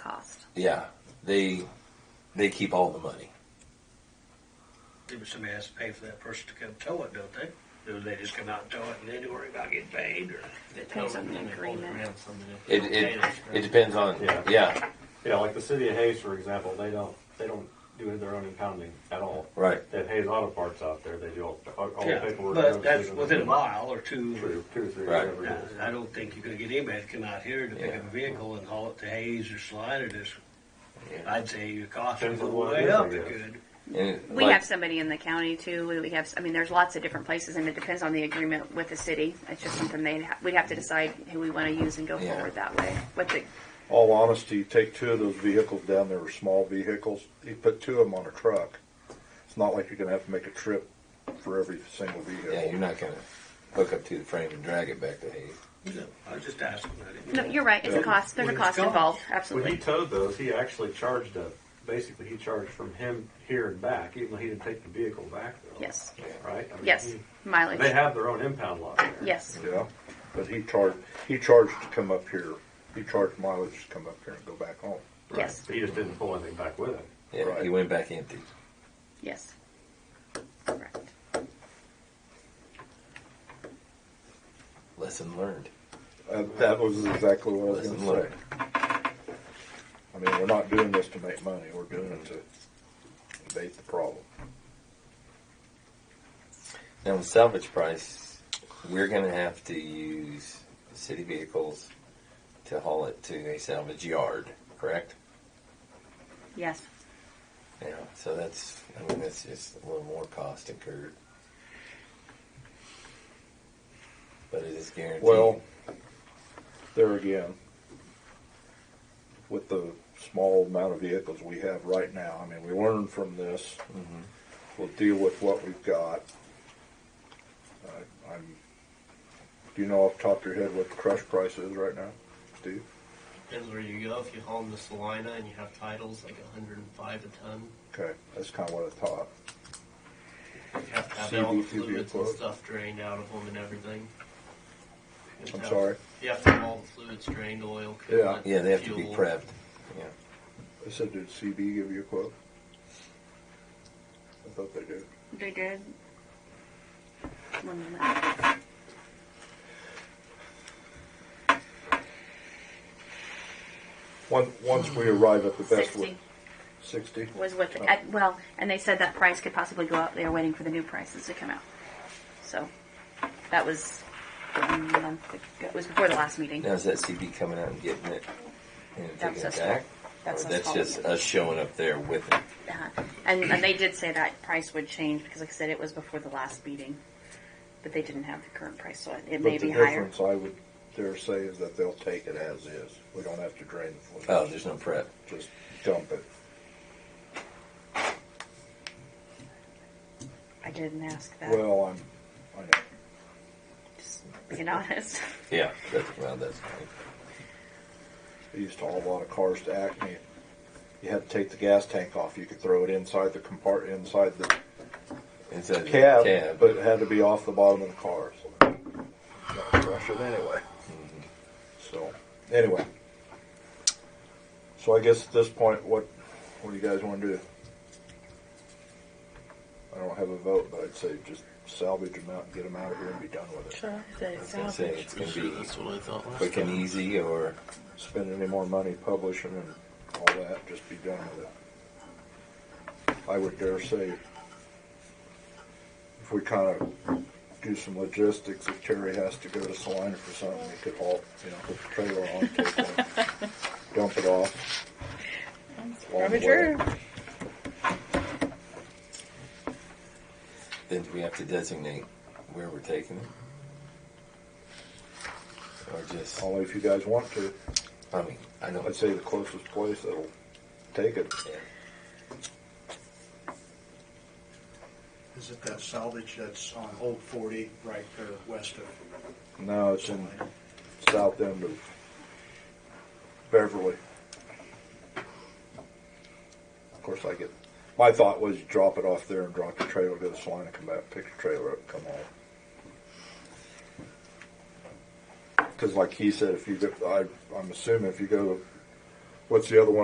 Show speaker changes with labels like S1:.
S1: cost.
S2: Yeah, they they keep all the money.
S3: Maybe somebody has to pay for that person to come tow it, don't they? Do they just come out and tow it and then worry about getting paid or?
S1: Depends on the agreement.
S2: It it, it depends on yeah.
S4: Yeah. Yeah, like the city of Hayes, for example, they don't, they don't do their own impounding at all.
S2: right.
S4: They have Hayes Auto Parts out there, they do all, all all the
S3: Yeah,
S4: paperwork.
S3: but
S4: goes
S3: that's
S4: through them.
S3: within a mile or two.
S4: Two, two or three,
S2: Right.
S4: whatever it is.
S3: I I don't think you're gonna get anybody to come out here to pick
S2: Yeah.
S3: up a vehicle and haul it to Hayes or Slide or this.
S2: Yeah.
S3: I'd say your cost would
S4: Depends
S3: go
S4: on what it
S3: way
S4: is, I
S3: up a
S4: guess.
S3: good.
S2: And it-
S1: We
S2: like-
S1: have somebody in the county too. We- We have, s- I mean, there's lots of different places and it depends on the agreement with the city. It's just something they, we'd have to decide who we want to use and go
S2: Yeah.
S1: forward that way. What the,
S5: All honesty, you take two of those vehicles down, there were small vehicles, you put two of them on a truck. It's not like you're gonna have to make a trip for every single
S2: yeah,
S5: vehicle.
S2: you're not gonna hook up to the frame and drag it back to Hayes.
S3: No, I was just asking. I didn't-
S1: no, you're right. It's a
S5: Yeah.
S1: cost. There's a
S3: When it's
S1: cost
S3: gone.
S1: involved.
S4: When he
S1: Absolutely.
S4: towed those, he actually charged a, basically he charged from him here and back, even though he didn't take the vehicle back though.
S1: Yes.
S4: Right? I mean,
S1: Yes.
S4: he- They
S1: Mileage.
S4: have their own impound lot there.
S1: Yes.
S5: Yeah, but he charged, he charged to come up here, he charged mileage to come up here and go back home.
S4: Right.
S1: Yes.
S4: He just didn't pull anything back with it.
S2: Yeah,
S5: Right.
S2: he went back empty.
S1: Yes. Correct.
S2: Lesson learned.
S5: Uh, that was exactly what I was
S2: Lesson
S5: gonna say.
S2: learned.
S5: I mean, we're not doing this to make money, we're doing it to abate the problem.
S2: Now the salvage price, we're gonna have to use city vehicles to haul it to a salvage yard, correct?
S1: Yes.
S2: Yeah. So that's I mean that's just a little more cost incurred. But it is guaranteed.
S5: Well, there again, with the small amount of vehicles we have right now, I mean, we learn from this. We'll deal with what we've got. I I'm, do you know off the top of your head what the crush price is right now, Steve?
S6: Depends where you go. If you haul them to Salina and you have titles like 105 a ton,
S5: Okay, that's kind of what I thought.
S6: you have to have all the
S5: CVT would be
S6: fluids and
S5: close.
S6: stuff drained out of them and everything. You have
S5: I'm
S6: to-
S5: sorry.
S6: You have to have all the fluids drained, oil, coolant,
S2: yeah, they have to be
S6: fuel.
S2: prepped.
S5: I said, did CB give you a quote? I thought they did.
S1: They did. One minute.
S5: Once, once we arrive at the best
S1: Sixty
S5: way. Sixty?
S1: was what, the- at- well, and they said that price could possibly go up. They were waiting for the new prices to come out. So that was a month ago. It was before the last meeting.
S2: Now is that CB coming out and getting it and taking
S1: That's
S2: it
S1: us.
S2: back?
S1: That's
S2: or
S1: us
S2: that's
S1: hauling
S2: just
S1: it.
S2: us showing up there with it.
S1: Uh-huh. And, and they did say that price would change because, like I said, it was before the last meeting. But they didn't have the current price, so it, it may
S5: But the
S1: be higher.
S5: difference I would dare say is that they'll take it as is. We don't have to drain the fluid.
S2: Oh, there's no prep.
S5: Just dump it.
S1: I didn't ask that.
S5: Well, I'm, I know.
S1: just being honest.
S2: Yeah, that's well, that's fine.
S5: I used to haul a lot of cars to Acme. You had to take the gas tank off. You could throw it inside the compart, inside the
S2: It's a
S5: cab,
S2: cab.
S5: but it had to be off the bottom of the cars. Not crush it anyway.
S2: Mm-hmm.
S5: So, anyway. So I guess at this point, what, what do you guys want to do? I don't have a vote, but I'd say just salvage them out, and get them out of here and be done with it.
S2: I was gonna say it's gonna
S6: Sure,
S2: be
S6: that's what I thought last
S2: quick and easy, or
S5: Spend any more money publishing and all that, just be done with it. I would dare say, if we kind of do some logistics, if Terry has to go to Salina for something, we could haul, you know, put the trailer on, take it, dump it off. along the way.
S2: then do we have to designate where we're taking it? Or just,
S5: Only if you guys want to.
S2: I mean, I know
S5: I'd
S2: it's,
S5: say the closest place that'll take it.
S2: yeah,
S7: Is it that salvage that's on Old Forty, right there west of
S5: No, it's in south end of Beverly. Of course, I get. My thought was drop it off there and drop the trailer, go to Salina, come back, pick the trailer up, come home. Because, like he said, if you go, I, I'm assuming if you go What's the other one?